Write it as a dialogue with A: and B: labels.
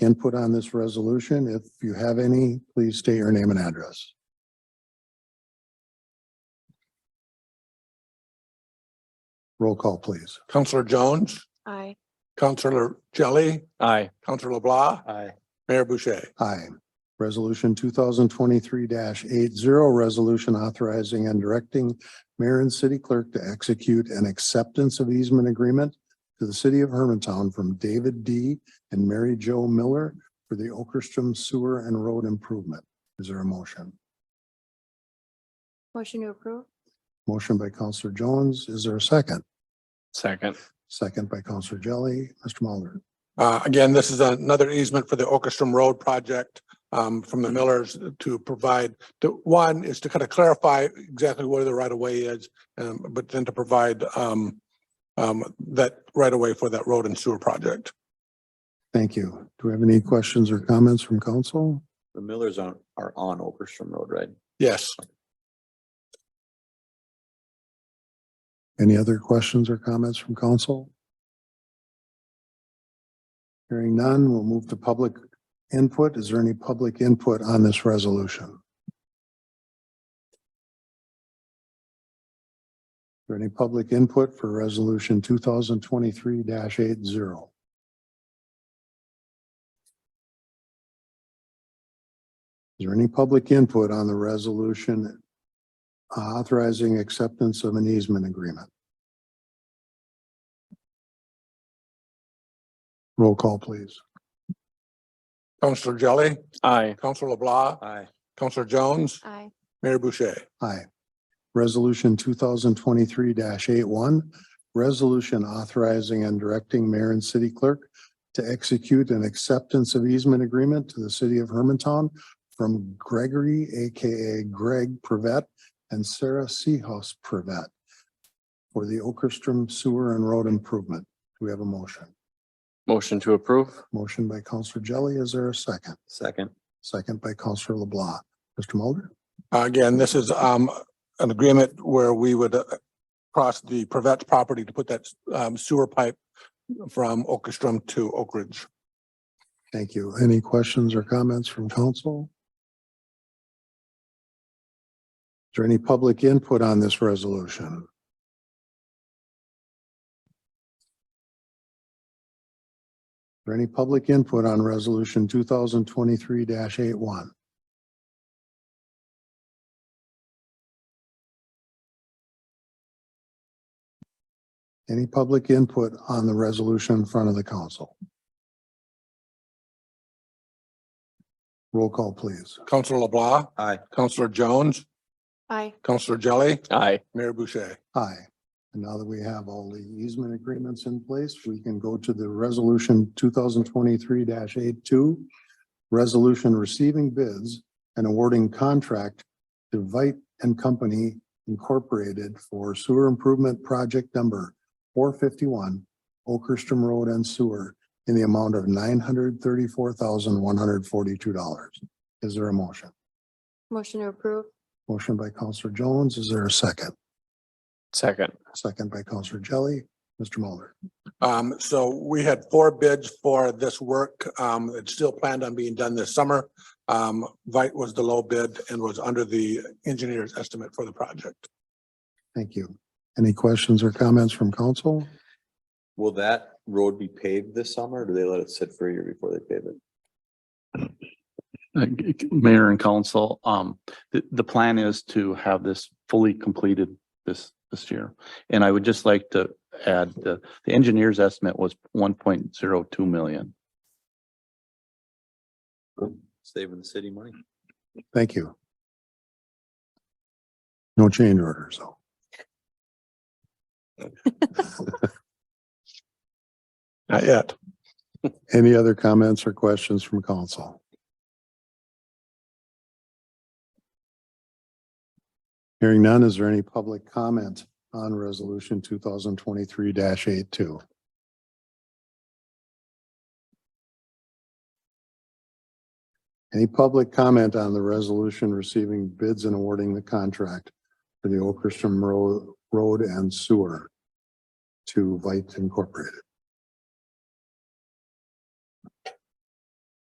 A: input on this resolution. If you have any, please state your name and address. Roll call, please.
B: Counselor Jones,
C: Aye.
B: Counselor Jelly,
D: Aye.
B: Counselor LeBlanc,
D: Aye.
B: Mayor Boucher.
A: Aye. Resolution two thousand twenty-three eight zero, resolution authorizing and directing mayor and city clerk to execute an acceptance of easement agreement to the city of Hermantown from David D. and Mary Jo Miller for the Okerstrom Sewer and Road Improvement. Is there a motion?
C: Motion to approve?
A: Motion by Counselor Jones. Is there a second?
D: Second.
A: Second by Counselor Jelly. Mr. Mulder.
B: Uh, again, this is another easement for the Orchestrum Road project um, from the Millers to provide, to, one is to kind of clarify exactly where the right of way is, um, but then to provide um, um, that right of way for that road and sewer project.
A: Thank you. Do we have any questions or comments from council?
D: The Millers are, are on Okerstrom Road, right?
B: Yes,
A: Any other questions or comments from council? Hearing none, we'll move to public input. Is there any public input on this resolution? Is there any public input for resolution two thousand twenty-three eight zero? Is there any public input on the resolution authorizing acceptance of an easement agreement. Roll call, please.
B: Counselor Jelly,
D: Aye.
B: Counselor LeBlanc,
D: Aye.
B: Counselor Jones,
C: Aye.
B: Mayor Boucher.
A: Aye. Resolution two thousand twenty-three 81 resolution authorizing and directing mayor and city clerk to execute an acceptance of easement agreement to the city of Hermantown from Gregory, AKA Greg Privet and Sarah Seahouse Privet for the Okerstrom Sewer and Road Improvement. Do we have a motion?
D: Motion to approve?
A: Motion by Counselor Jelly. Is there a second?
D: Second.
A: Second by Counselor LeBlanc. Mr. Mulder?
B: Uh, Again, this is um an agreement where we would uh, cross the Privet property to put that um sewer pipe from Orchestrum to Oak Ridge.
A: Thank you. Any questions or comments from council? Is there any public input on this resolution? Is there any public input on resolution two thousand twenty-three 81 Any public input on the resolution in front of the council? Roll call, please.
B: Counselor LeBlanc,
D: Aye.
B: Counselor Jones,
C: Aye.
B: Counselor Jelly,
D: Aye.
B: Mayor Boucher.
A: Aye. And now that we have all the easement agreements in place, we can go to the resolution two thousand twenty-three 82 Resolution receiving bids and awarding contract to Vite and Company Incorporated for sewer improvement project number four fifty-one Okerstrom Road and Sewer in the amount of nine hundred thirty-four thousand one hundred forty-two dollars. Is there a motion?
C: Motion to approve?
A: Motion by Counselor Jones. Is there a second?
D: Second.
A: Second by Counselor Jelly. Mr. Mulder.
B: Um, so we had four bids for this work. Um, it's still planned on being done this summer. Um, Vite was the low bid and was under the engineer's estimate for the project.
A: Thank you. Any questions or comments from council?
E: Will that road be paved this summer? or Do they let it sit for a year before they pave it?
F: Uh, g- g- Mayor and council, um, the, the plan is to have this fully completed this, this year. And I would just like to add, the, the engineer's estimate was one point zero two million.
E: Saving the city money?
A: Thank you. No change orders, though.
B: Not yet.
A: Any other comments or questions from council? Hearing none, is there any public comment on resolution two thousand twenty-three 82 Any public comment on the resolution receiving bids and awarding the contract for the Okerstrom Road, Road and Sewer to Vite Incorporated?